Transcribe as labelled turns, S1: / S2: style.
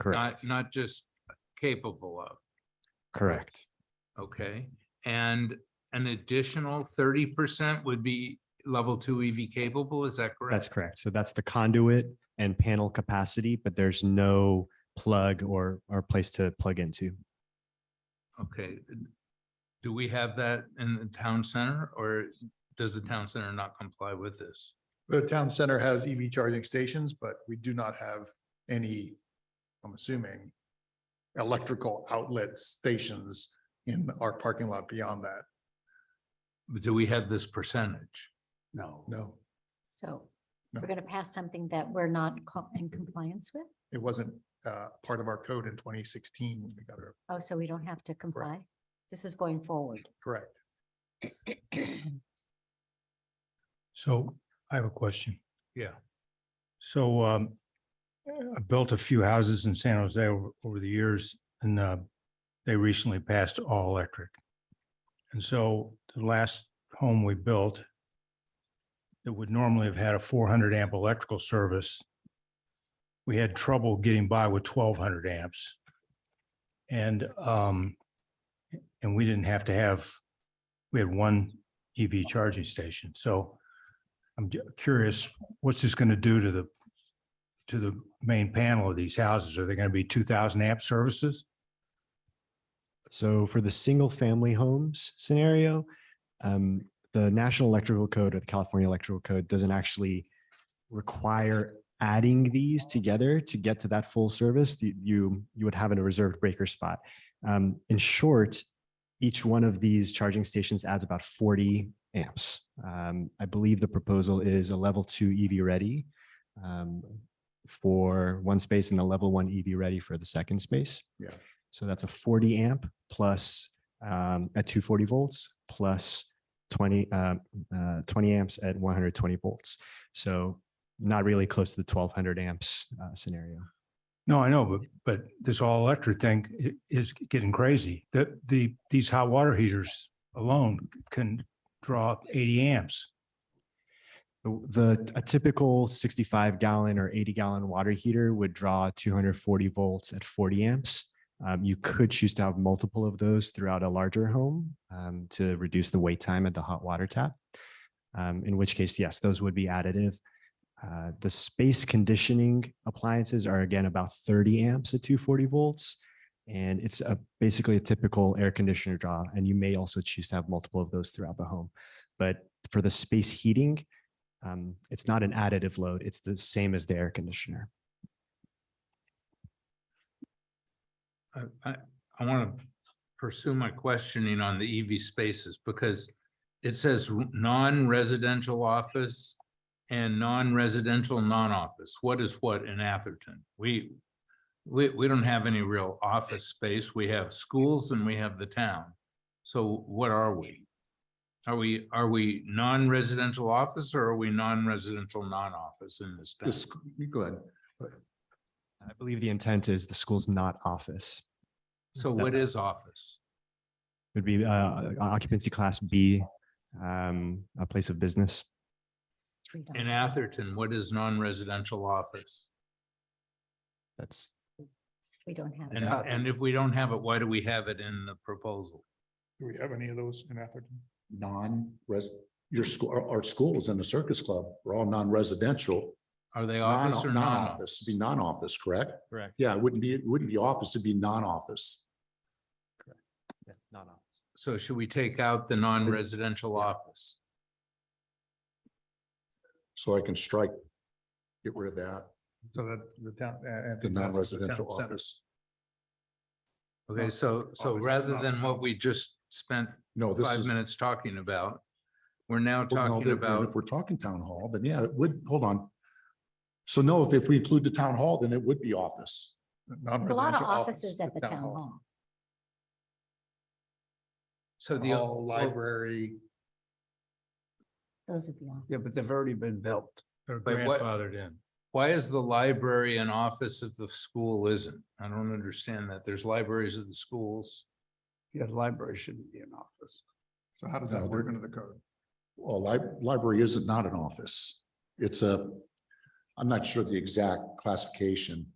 S1: Correct,
S2: not, not just capable of,
S1: correct.
S2: okay? And an additional thirty percent would be level two EV capable, is that correct?
S1: That's correct. So that's the conduit and panel capacity, but there's no plug or, or place to plug into.
S2: Okay. Do we have that in the town center or does the town center not comply with this?
S3: The town center has EV charging stations, but we do not have any, I'm assuming, electrical outlet stations in our parking lot beyond that.
S2: Do we have this percentage?
S4: No.
S3: No,
S5: So
S3: No.
S5: we're going to pass something that we're not co- in compliance with?
S3: it wasn't uh, part of our code in twenty sixteen when we got it.
S5: Oh, so we don't have to comply? This is going forward.
S3: Correct.
S4: So I have a question.
S2: Yeah.
S4: So um, I built a few houses in San Jose over, over the years and uh, they recently passed all electric. And so the last home we built that would normally have had a four hundred amp electrical service, we had trouble getting by with twelve hundred amps. And um, and we didn't have to have, we had one EV charging station. So I'm ju- curious, what's this going to do to the, to the main panel of these houses? Are they going to be two thousand amp services?
S1: So for the single family homes scenario, um, the National Electrical Code or the California Electrical Code doesn't actually require adding these together to get to that full service. You, you, you would have a reserved breaker spot. Um, in short, each one of these charging stations adds about 40 amps. Um, I believe the proposal is a level two EV ready um, for one space and a level one EV ready for the second space. So that's a 40 amp plus um, at 240 volts plus 20 uh, uh, 20 amps at 120 volts. So not really close to the 1200 amps uh, scenario.
S4: No, I know, but, but this all electric thing i- is getting crazy. The, the, these hot water heaters alone can draw up eighty amps.
S1: The, the a typical 65 gallon or 80 gallon water heater would draw 240 volts at 40 amps. Um, you could choose to have multiple of those throughout a larger home um, to reduce the wait time at the hot water tap. Um, in which case, yes, those would be additive. Uh, the space conditioning appliances are again about 30 amps at 240 volts. And it's a, basically a typical air conditioner draw. And you may also choose to have multiple of those throughout the home. But for the space heating, um, it's not an additive load. It's the same as the air conditioner.
S2: I, I, I want to pursue my questioning on the EV spaces because it says non-residential office and non-residential non-office. What is what in Atherton? We, we, we don't have any real office space. We have schools and we have the town. So what are we? Are we, are we non-residential office or are we non-residential non-office in this town?
S3: The sc- you Go ahead.
S1: I believe the intent is the school's not office.
S2: So what is office?
S1: It would be uh, occupancy class B, um, a place of business.
S5: We don't.
S2: In Atherton, what is non-residential office?
S1: That's
S5: We don't have.
S2: And,
S5: it.
S3: Yeah.
S2: and if we don't have it, why do we have it in the proposal?
S3: Do we have any of those in Atherton?
S6: non-res, your school, our, our schools and the circus club are all non-residential.
S2: Are they
S6: non-
S2: office or
S6: Non-office,
S2: non-office?
S6: be non-office, correct?
S1: correct.
S6: Yeah, it wouldn't be, it wouldn't be office, it'd be non-office.
S1: Not office.
S2: So should we take out the non-residential office?
S6: So I can strike, get rid of that.
S3: So that the town. uh, Atherton
S6: The
S3: Town Center,
S6: non-residential
S3: town center.
S6: office.
S2: Okay, so, so
S3: office,
S2: rather
S3: not-
S2: than what we just spent
S6: No, this
S2: five
S6: is.
S2: minutes talking about, we're now
S6: well, no,
S2: talking
S6: then- then
S2: about,
S6: If we're talking town hall, then yeah, it would, hold on. So no, if, if we include the town hall, then it would be office.
S5: A lot of
S3: Non-residential office,
S5: offices at the town hall.
S2: so
S3: Town
S2: the.
S3: Hall, library.
S5: Those would be on.
S7: Yeah, but they've already been built.
S4: They're
S2: But what-
S4: grandfathered in.
S2: Why is the library an office if the school isn't? I don't understand that. There's libraries at the schools.
S7: Yeah, the library shouldn't be an office.
S3: So how does that
S6: No,
S3: work
S6: they're-
S3: under the code?
S6: Well, li- library isn't not an office. It's a, I'm not sure the exact classification.